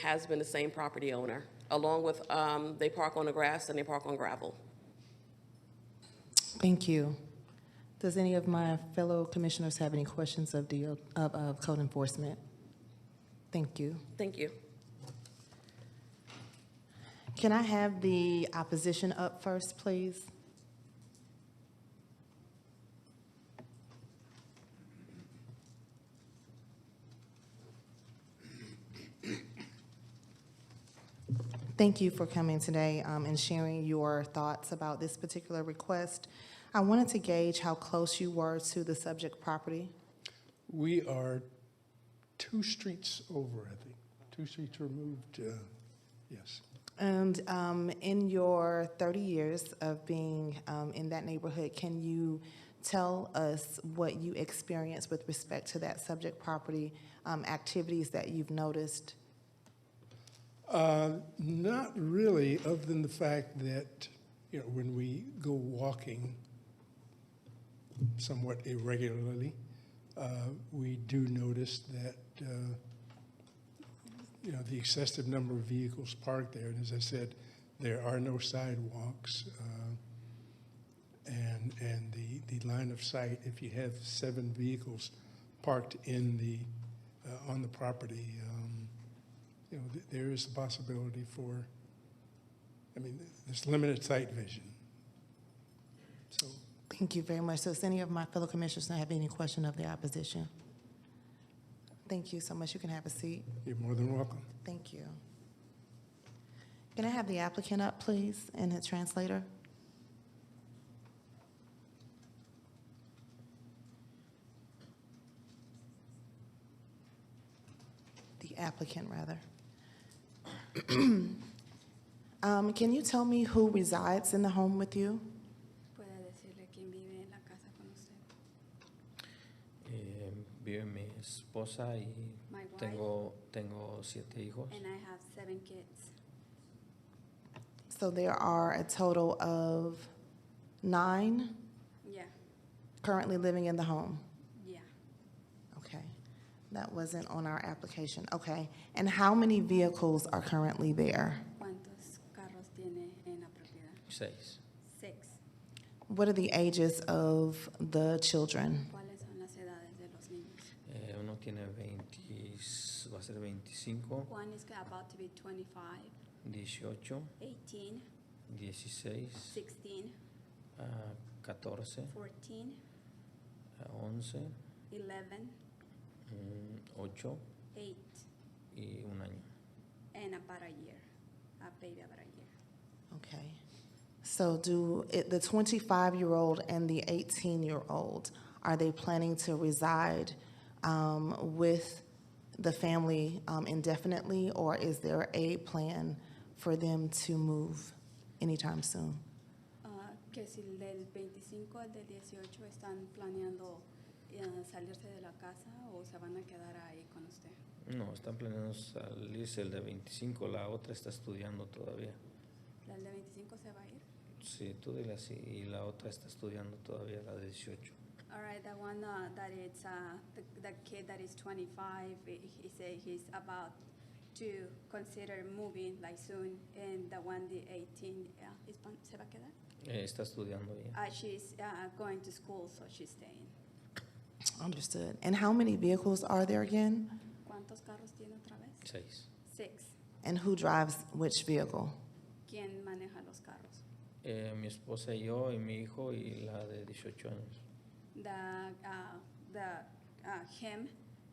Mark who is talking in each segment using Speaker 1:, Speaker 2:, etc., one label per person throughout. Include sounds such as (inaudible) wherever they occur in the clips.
Speaker 1: has been the same property owner, along with, um, they park on the grass and they park on gravel.
Speaker 2: Thank you. Does any of my fellow commissioners have any questions of the, of, of code enforcement? Thank you.
Speaker 1: Thank you.
Speaker 2: Can I have the opposition up first, please? Thank you for coming today um, and sharing your thoughts about this particular request. I wanted to gauge how close you were to the subject property.
Speaker 3: We are two streets over, I think, two streets removed, uh, yes.
Speaker 2: And um, in your 30 years of being um, in that neighborhood, can you tell us what you experienced with respect to that subject property, um, activities that you've noticed?
Speaker 3: Uh, Not really, other than the fact that, you know, when we go walking somewhat irregularly, uh, we do notice that, uh, you know, the excessive number of vehicles parked there. And as I said, there are no sidewalks. uh, And, and the, the line of sight, if you have seven vehicles parked in the, uh, on the property, um, you know, th- there is the possibility for, I mean, th- there's limited sight vision. So,
Speaker 2: Thank you very much. So does any of my fellow commissioners not have any question of the opposition? Thank you so much. You can have a seat.
Speaker 3: you're more than welcome.
Speaker 2: Thank you. Can I have the applicant up, please, and the translator? The applicant, rather. (clears throat) Um, Can you tell me who resides in the home with you?
Speaker 4: pueda decirle quién vive en la casa con usted.
Speaker 5: Eh, vive mi esposa y
Speaker 4: My wife
Speaker 5: tengo, tengo siete hijos.
Speaker 4: and I have seven kids.
Speaker 2: So there are a total of nine
Speaker 4: Yeah,
Speaker 2: currently living in the home.
Speaker 4: yeah.
Speaker 2: Okay, that wasn't on our application, okay. And how many vehicles are currently there?
Speaker 4: ¿Cuántos carros tiene en la propiedad?
Speaker 5: Seis.
Speaker 4: Six.
Speaker 2: What are the ages of the children?
Speaker 4: ¿Cuáles son las edades de los niños?
Speaker 5: Eh, uno tiene 20, va a ser 25,
Speaker 4: One is about to be 25,
Speaker 5: 18,
Speaker 4: 18,
Speaker 5: 16,
Speaker 4: 16,
Speaker 5: ah, 14,
Speaker 4: 14,
Speaker 5: ah, 11,
Speaker 4: 11,
Speaker 5: mm, 8
Speaker 4: 8,
Speaker 5: y un año.
Speaker 4: and about a year. A baby about a year.
Speaker 2: Okay, so do, it- the 25-year-old and the 18-year-old, are they planning to reside um, with the family um, indefinitely? Or is there a plan for them to move anytime soon?
Speaker 4: Ah, que si el del 25 al del 18 están planeando eh, salirse de la casa o se van a quedar ahí con usted.
Speaker 5: No, están planeando salirse el de 25, la otra está estudiando todavía.
Speaker 4: ¿La del 25 se va a ir?
Speaker 5: Sí, tú dile así, y la otra está estudiando todavía, la de 18.
Speaker 4: All right, the one uh, that it's, uh, the, the kid that is 25, he he say he's about to consider moving like soon, and the one the 18, uh, is, pon- ¿se va a quedar?
Speaker 5: Eh, está estudiando ya.
Speaker 4: Uh, she's uh, going to school, so she's staying.
Speaker 2: Understood. And how many vehicles are there again?
Speaker 4: ¿Cuántos carros tiene otra vez?
Speaker 5: Seis.
Speaker 4: Six.
Speaker 2: And who drives which vehicle?
Speaker 4: ¿Quién maneja los carros?
Speaker 5: Eh, mi esposa y yo, y mi hijo, y la de 18 años.
Speaker 4: The, uh, the, uh, him,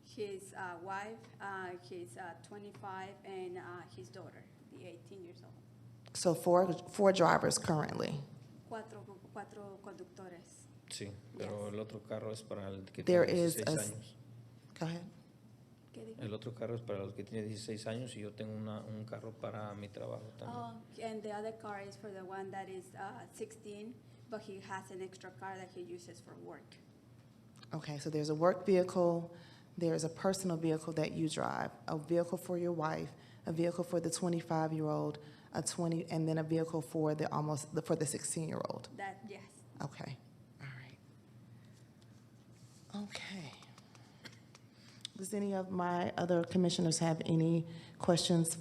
Speaker 4: his uh, wife, uh, his uh, 25, and uh, his daughter, the 18 years old.
Speaker 2: So four, four drivers currently.
Speaker 4: Cuatro, cuatro conductores.
Speaker 5: Sí, pero
Speaker 4: Yes.
Speaker 5: el otro carro es para el que
Speaker 2: There
Speaker 5: tiene
Speaker 2: is a
Speaker 5: 16
Speaker 2: s-
Speaker 5: años.
Speaker 2: Go ahead.
Speaker 4: ¿Qué dijo?
Speaker 5: El otro carro es para el que tiene 16 años y yo tengo una, un carro para mi trabajo también.
Speaker 4: Oh, and the other car is for the one that is uh, 16, but he has an extra car that he uses for work.
Speaker 2: Okay, so there's a work vehicle, there's a personal vehicle that you drive, a vehicle for your wife, a vehicle for the 25-year-old, a 20, and then a vehicle for the almost, for the 16-year-old.
Speaker 4: That, yes.
Speaker 2: Okay, all right. Okay. Does any of my other commissioners have any questions